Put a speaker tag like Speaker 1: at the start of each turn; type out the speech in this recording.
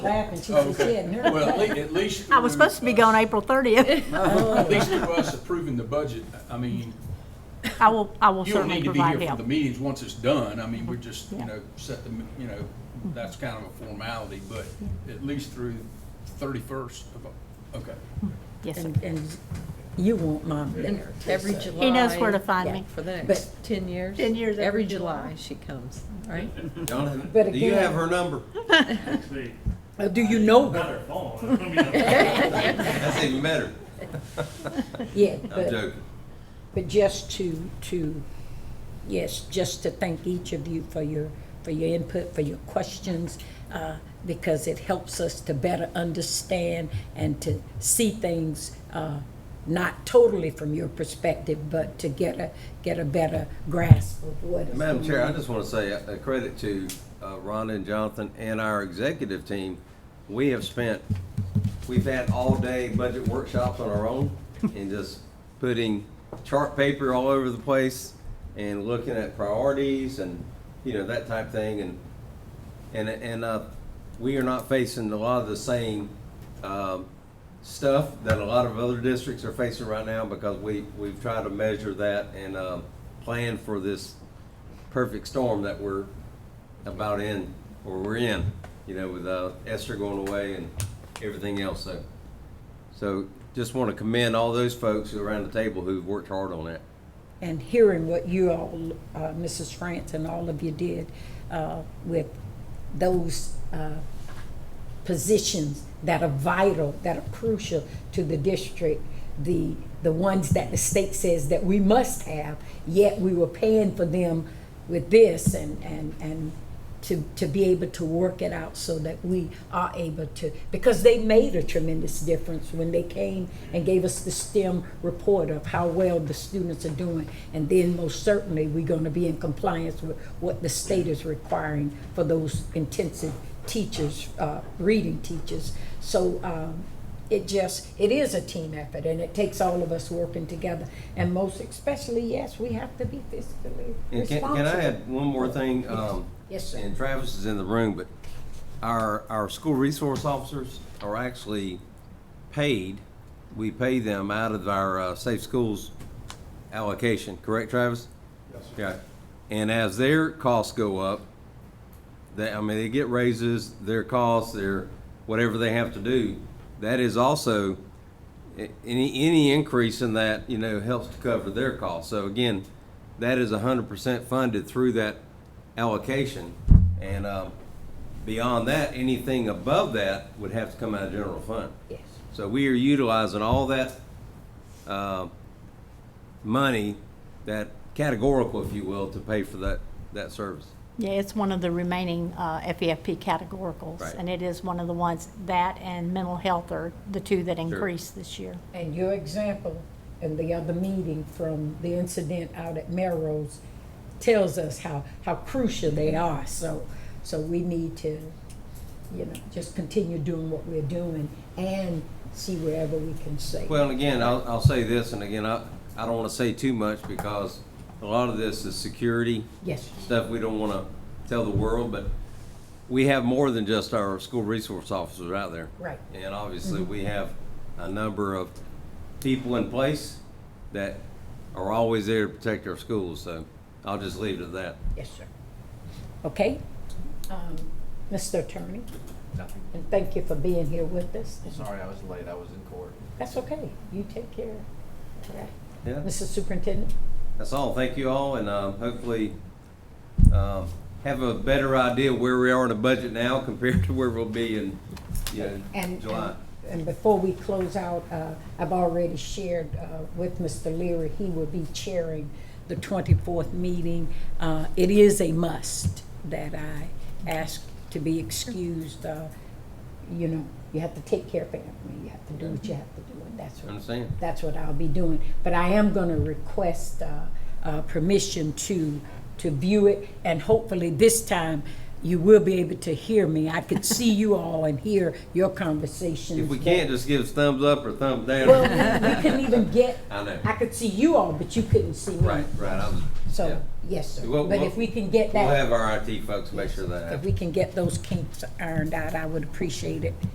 Speaker 1: laughing, she
Speaker 2: Oh,
Speaker 1: was
Speaker 2: Okay.
Speaker 1: kidding.
Speaker 2: Well, at least, at least.
Speaker 3: I was supposed to be gone April 30th.
Speaker 2: At least for us approving the budget, I mean,
Speaker 3: I will, I will
Speaker 2: you don't need
Speaker 3: certainly
Speaker 2: to be here
Speaker 3: provide
Speaker 2: for the
Speaker 3: help.
Speaker 2: meetings once it's done. I mean, we're just, you
Speaker 3: Yeah.
Speaker 2: know, set the, you know, that's kind of a formality, but at least through thirty-first of, okay.
Speaker 3: Yes, sir.
Speaker 1: And, and you want mom
Speaker 4: And
Speaker 1: there.
Speaker 4: every
Speaker 1: so.
Speaker 4: July.
Speaker 3: He knows where to find me.
Speaker 4: For the
Speaker 1: But-
Speaker 4: next ten years.
Speaker 3: 10 years every
Speaker 4: Every July she comes, right?
Speaker 1: But
Speaker 5: Donovan, do you
Speaker 1: again-
Speaker 5: have her number?
Speaker 6: See,
Speaker 1: Uh, Do you know her?
Speaker 6: not their phone. I don't mean their phone.
Speaker 5: That's even better.
Speaker 1: Yeah,
Speaker 5: I'm
Speaker 1: but,
Speaker 5: joking.
Speaker 1: but just to, to, yes, just to thank each of you for your, for your input, for your questions, uh, because it helps us to better understand and to see things, uh, not totally from your perspective, but to get a, get a better grasp of what is
Speaker 5: Madam Chair, I just want to say a a credit to uh, Rhonda and Jonathan and our executive team. We have spent, we've had all-day budget workshops on our own and just putting chart paper all over the place and looking at priorities and, you know, that type thing. And and and uh, we are not facing a lot of the same um, stuff that a lot of other districts are facing right now because we we've tried to measure that and um, plan for this perfect storm that we're about in or we're in, you know, with uh, Esther going away and everything else. So, so just want to commend all those folks who are around the table who've worked hard on that.
Speaker 1: and hearing what you all, uh, Mrs. France and all of you did uh, with those uh, positions that are vital, that are crucial to the district, the, the ones that the state says that we must have, yet we were paying for them with this and, and, and to, to be able to work it out so that we are able to, because they made a tremendous difference when they came and gave us the STEM report of how well the students are doing. And then most certainly, we're gonna be in compliance with what the state is requiring for those intensive teachers, uh, reading teachers. So, um, it just, it is a team effort and it takes all of us working together. And most especially, yes, we have to be fiscally
Speaker 5: And can,
Speaker 1: responsible.
Speaker 5: can I add one more thing? Um,
Speaker 1: Yes, sir.
Speaker 5: And Travis is in the room, but our, our school resource officers are actually paid. We pay them out of our uh, safe schools allocation, correct, Travis? Yes. Yeah. And as their costs go up, they, I mean, they get raises, their costs, their, whatever they have to do. That is also, a- any, any increase in that, you know, helps to cover their costs. So again, that is hundred percent funded through that allocation. And, um, beyond that, anything above that would have to come out of general fund.
Speaker 1: Yes.
Speaker 5: So we are utilizing all that, uh, money, that categorical, if you will, to pay for that, that service.
Speaker 3: Yeah, it's one of the remaining uh, FEFP categoricals,
Speaker 5: Right.
Speaker 3: and it is one of the ones, that and mental health are the two that increased this year.
Speaker 1: And your example in the other meeting from the incident out at Melrose tells us how, how crucial they are. So, so we need to, you know, just continue doing what we're doing and see wherever we can save.
Speaker 5: Well, and again, I'll, I'll say this, and again, I, I don't wanna say too much because a lot of this is security
Speaker 1: Yes,
Speaker 5: stuff we don't wanna tell the world, but we have more than just our school resource officers out there.
Speaker 1: Right.
Speaker 5: And obviously, we have a number of people in place that are always there to protect our schools, so I'll just leave it at that.
Speaker 1: yes, sir. Okay? Um, Mr. Attorney,
Speaker 7: Nothing.
Speaker 1: and thank you for being here with us.
Speaker 7: Sorry, I was late. I was in court.
Speaker 1: That's okay. You take care. All right.
Speaker 5: Yeah,
Speaker 1: Mrs. Superintendent?
Speaker 5: that's all. Thank you all, and, um, hopefully, um, have a better idea where we are in the budget now compared to where we'll be in, you know,
Speaker 1: And,
Speaker 5: July.
Speaker 1: and- and before we close out, uh, I've already shared uh, with Mr. Leary, he will be chairing the 24th meeting. Uh, It is a must that I ask to be excused. uh, You know, you have to take care of family, you have to do what you have to do, and that's what
Speaker 5: Understand?
Speaker 1: that's what I'll be doing. But I am going to request uh, uh, permission to, to view it, and hopefully this time you will be able to hear me. I could see you all and hear your conversations.
Speaker 5: If we can't, just give us thumbs up or thumbs down.
Speaker 1: Well, we we couldn't even get,
Speaker 5: I know.
Speaker 1: I could see you all, but you couldn't see me.
Speaker 5: Right, right, I was Yeah.
Speaker 1: So, yes, sir.
Speaker 5: We'll-
Speaker 1: But
Speaker 5: we'll-
Speaker 1: if we can get
Speaker 5: We'll
Speaker 1: that,
Speaker 5: have our IT folks make sure that happens.
Speaker 1: if we can get those kinks ironed out, I would appreciate it.